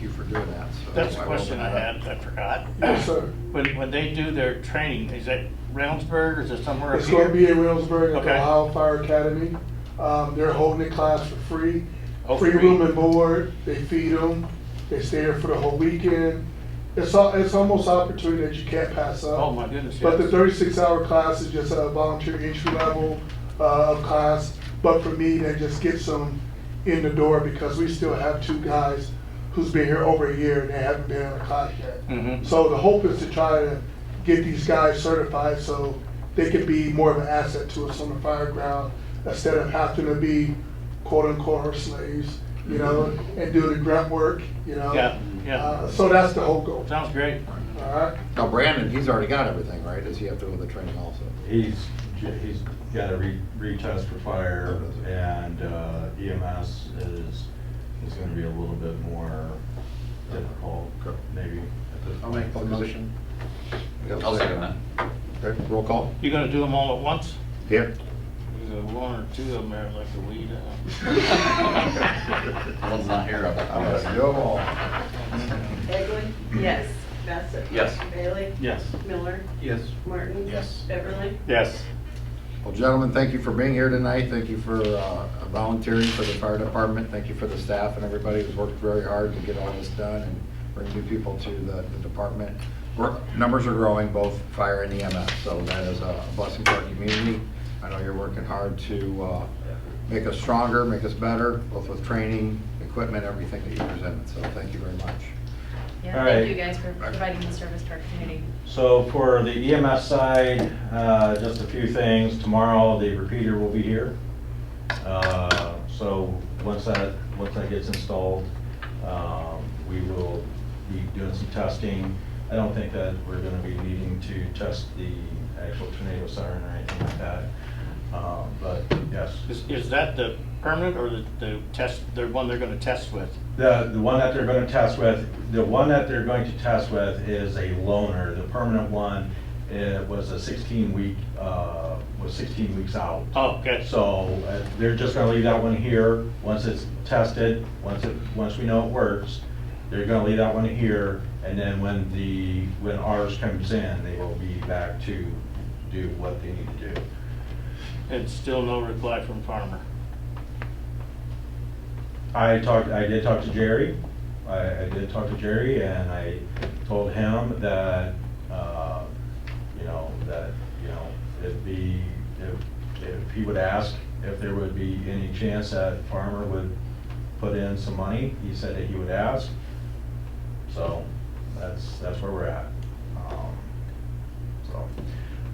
you for doing that, so. That's a won't question I open it up. had, I forgot. Yes, sir. When, when they do their training, is that Roundsburg, or is it somewhere up It's gonna be here? in Williamsburg at the Okay. Ohio Fire Academy. Um, they're holding the class for free. Oh, Free free. room and board, they feed them, they stay here for the whole weekend. It's al- it's almost opportunity that you can't pass up. Oh, my goodness, But the yes. thirty-six hour class is just a volunteer entry level, uh, of class. But for me, that just gets them in the door because we still have two guys who's been here over a year and they haven't been in a class yet. Mhm. So the hope is to try to get these guys certified so they can be more of an asset to us on the fire ground instead of having to be quote unquote our slaves, you know, and do the grunt work, you know? Mm-hmm. Yeah, yeah, Uh, So that's the whole goal, all sounds great. right? Now Brandon, he's already got everything, right? Does he have to go to the training also? He's, j- he's got a re, retest for fire and uh, EMS is, is gonna be a little bit more difficult, Okay. maybe. at this I'll make the point. motion. I'll second that. Okay, roll call. You gonna do them all at once? Here. There's a one or two of them there like the weed. uh. out. Alan's not here. I'm gonna do 'em all. Egley? Yes. Bassett? Yes. Bailey? Yes. Miller? Yes. Martin? Yes. Beverly? Yes. Well, gentlemen, thank you for being here tonight. Thank you for uh, volunteering for the fire department. Thank you for the staff and everybody who's worked very hard to get all this done and bring new people to the the department. We're- Numbers are growing, both fire and EMS, so that is a blessing for our community. I know you're working hard to uh, make us stronger, make us better, both with training, equipment, everything that you presented, so thank you very much. All Yeah, right. thank you guys for providing the service to our community. So for the EMS side, uh, just a few things. Tomorrow, the repeater will be here. Uh, So once that, once that gets installed, um, we will be doing some testing. I don't think that we're gonna be needing to test the actual tornado siren or anything like that. Um, But yes, Is, is that the permanent or the, the test, the one they're gonna test with? the, the one that they're gonna test with, the one that they're going to test with is a loaner, the permanent one, it was a sixteen week, uh, was sixteen weeks out. Oh, good. So, uh, they're just gonna leave that one here, once it's tested, once it, once we know it works, they're gonna leave that one here, and then when the, when ours comes in, they will be back to do what they need to do. And still no reply from Farmer. I talked, I did talk to Jerry, I, I did talk to Jerry, and I told him that, uh, you know, that, you know, it'd be, if, if he would ask if there would be any chance that Farmer would put in some money, he said that he would ask, so, that's, that's where we're at. Um, So,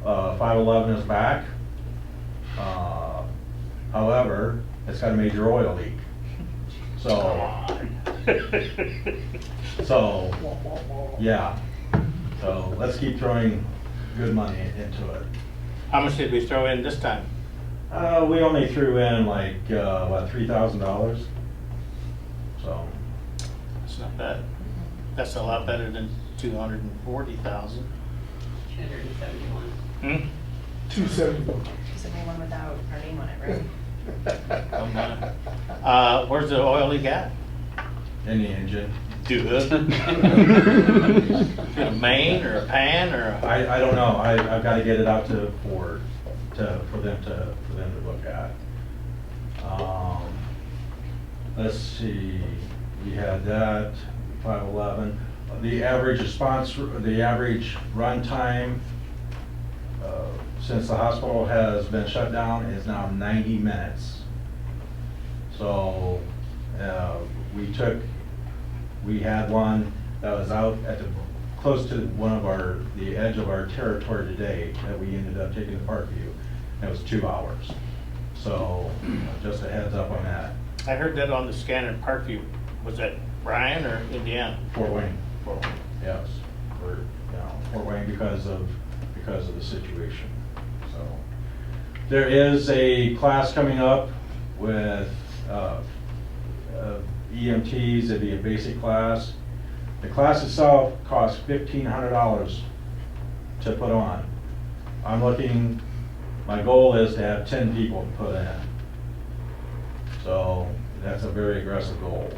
uh, five eleven is back, uh, however, it's got a major oil leak, so. So, yeah, so let's keep throwing good money into it. How much did we throw in this time? Uh, we only threw in like, uh, what, three thousand dollars? So, That's not bad. That's a lot better than two hundred and forty thousand. 271. Hmm? Two seventy. Just anyone without our name on it, right? Come on. Uh, where's the oil leak at? in the engine, Dude. uh, In a main or a pan or a, I, I don't know, I, I've gotta get it out to Ford, to, for them to, for them to look at. Um, Let's see, we had that, five eleven, the average response, the average run time uh, since the hospital has been shut down is now ninety minutes. So, uh, we took, we had one that was out at the, close to one of our, the edge of our territory today, that we ended up taking to Parkview, and it was two hours. So, just a heads up on that, I heard that on the scanner in Parkview. Was that Brian or Indiana? Fort Wayne, Fort Wayne, yes, or, you know, Fort Wayne because of, because of the situation, so. There is a class coming up with, uh, uh, EMTs, it'd be a basic class. The class itself costs fifteen hundred dollars to put on. I'm looking, my goal is to have ten people put in. So, that's a very aggressive goal.